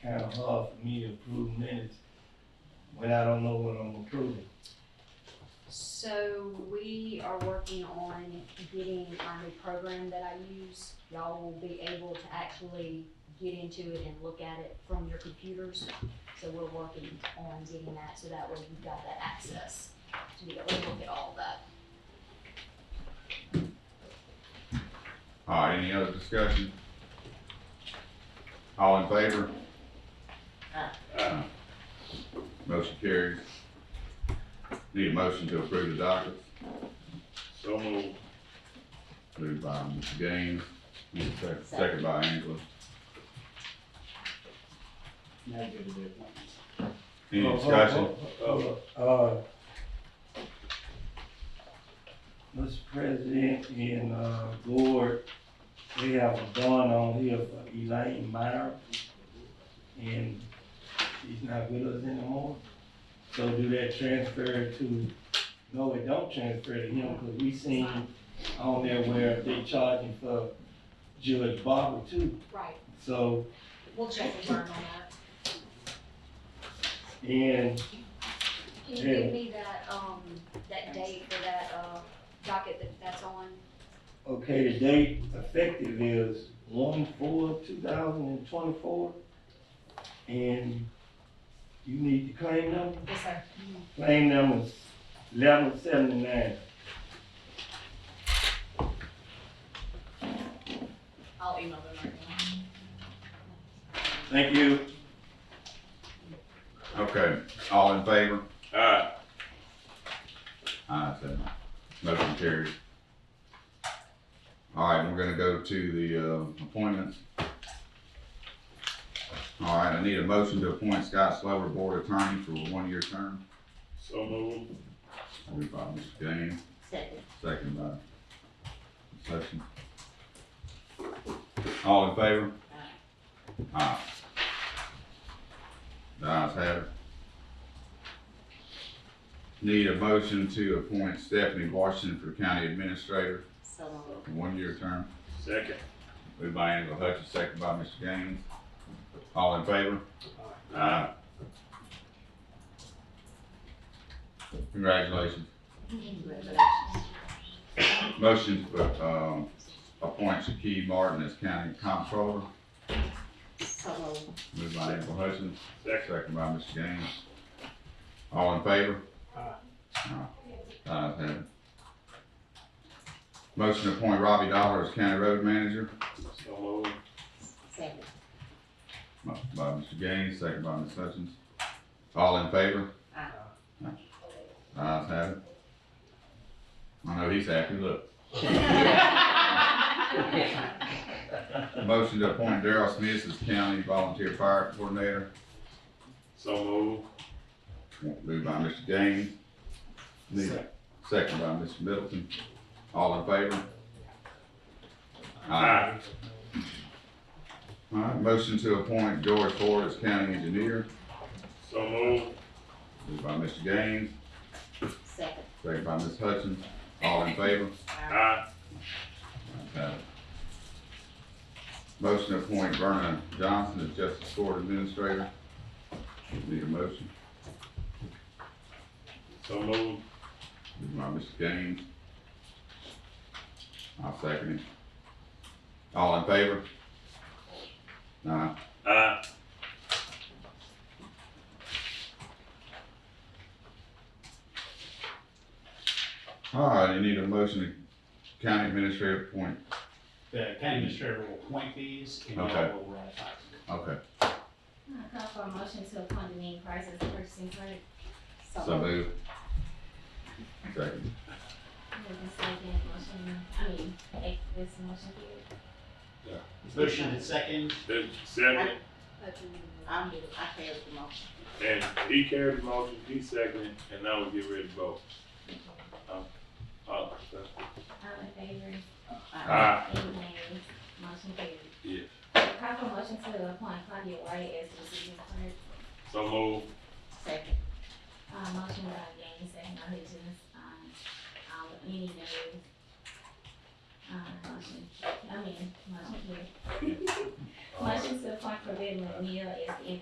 kinda hard for me to approve minutes when I don't know what I'm approving. So we are working on getting our new program that I use. Y'all will be able to actually get into it and look at it from your computers. So we're working on getting that, so that way you've got that access to be able to look at all that. All right, any other discussion? All in favor? Aye. Aye. Motion carries. Need a motion to approve the docket, So moved. moved by Mr. Gaines, need a sec- second by Angela. Oh, Any discussion? Uh, uh, Mr. President and, uh, board, we have a bond on here for Elaine Meyer. And she's not with us anymore. So do that transfer to, no, it don't transfer to him, cause we seen on there where they charging for Judge Barber too. Right, So we'll check and learn on that. And Can you give me that, um, that date for that, uh, docket that that's on? okay, the date effective is one four two thousand and twenty-four. And you need the claim number? Yes, sir. Claim number is eleven seventy-nine. I'll email them right now. Thank you. Okay, all in favor? Aye. Aye, so motion carries. All right, we're gonna go to the, uh, appointments. All right, I need a motion to appoint Scott Slover Board Attorney for a one-year term. So moved. Moved by Mr. Gaines, Second. second by Ms. Hutchins. All in favor? Aye. The ayes have it. Need a motion to appoint Stephanie Washington for County Administrator. So moved. One-year term, Second. moved by Angela Hutchins, second by Mr. Gaines. All in favor? Aye. Congratulations. Mm-hmm. Congratulations. Motion to, um, appoint Shaquille Martin as county comptroller, So moved. moved by Angela Hutchins, Second. second by Mr. Gaines. All in favor? Aye. Aye. Ayes have it. Motion to appoint Robbie Dollar as county road manager, So moved. Second. Mo- by Mr. Gaines, second by Ms. Hutchins. All in favor? Aye. Ayes have it. I know he's happy, look. Motion to appoint Daryl Smith as county volunteer fire coordinator, So moved. moved by Mr. Gaines. Need- Second by Mr. Middleton. All in favor? Aye. All right, motion to appoint George Ford as county engineer, So moved. moved by Mr. Gaines, Second. second by Ms. Hutchins. All in favor? Aye. Ayes have it. Motion to appoint Vernon Johnson as justice court administrator. Need a motion? So moved. Moved by Mr. Gaines. I'll second it. All in favor? Aye. Aye. All right, you need a motion to county administrator appoint. The county administrator will appoint these and Okay. y'all will uh, ratify. them. Okay, I call for a motion to appoint Denise Price as the purchasing clerk. Uh-huh. so move. Second. Move in second, motion, I mean, eh, this motion here. Motion and second, Then Second. I'm, I carried the motion. And he carried the motion, he seconded, and now we get ready to vote. Um, uh, All in favor? Aye. Any nays? Motion carried. Yes. I call for a motion to appoint Claudia White as the receiving clerk. So moved. Second. Uh, motion by Gaines, second by Hutchins, um, um, any nays? Uh, motion, uh, I mean, motion carried. Motion to appoint Corvette McNeil as the